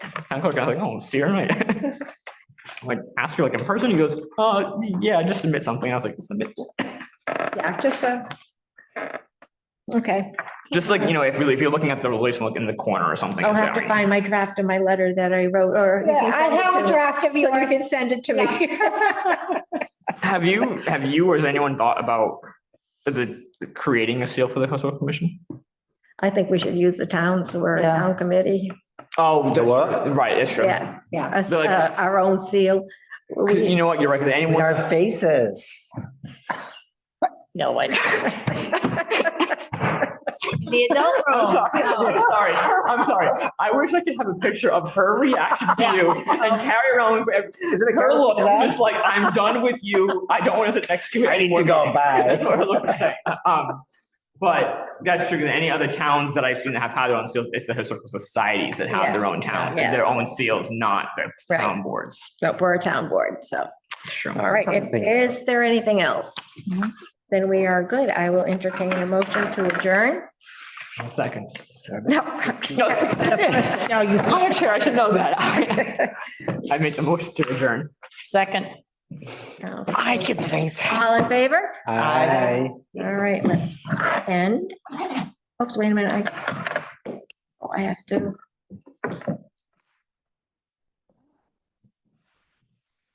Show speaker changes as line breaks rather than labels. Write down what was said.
kind of like, I don't see her. I'm Like, I'm like, ask her like in person. He goes, uh, yeah, just submit something. I was like, submit.
Yeah, just a. Okay,
Just like, you know, if you're, if you're looking at the relation like in the corner or something.
I'll
just
have
say,
to find my draft of my letter that I wrote, or. you can
Yeah, I
send it to
have a
me.
draft of
So you
yours.
can send it to me.
Have you, have you or has anyone thought about the, creating a seal for the cultural commission?
I think we should use the towns or a
Yeah.
town committee.
Oh,
The
that's
what?
Right, that's true.
Yeah, yeah, us-
So like-
uh, our own seal.
'Cause You
We,
know what? You're right. 'cause
With
Anyone,
our faces.
no, I.
The adult
I'm
Oh,
room.
sorry, I'm sorry, I'm sorry. I wish I could have a picture of her reaction to you and carry around for every- her look, just like, I'm done with you. I don't want to sit next to you.
I need to
anymore."
go bye.
That's what her look was like. Um, but that's true. Any other towns that I've seen that have had their own seals, it's the historical societies that have their own towns,
Yeah.
their own seals, not the
Right.
town boards.
No, we're a town board, so.
Sure.
All right, and
Something.
is there anything else?
Mhm.
Then we are good. I will entertain a motion to adjourn.
One second.
No.
No, now you, I'm a chair, I should know that. I made the motion to adjourn.
Second.
No.
I could say so.
All in favor?
Aye.
All right, let's end. Oops, wait a minute. I, oh, I have to.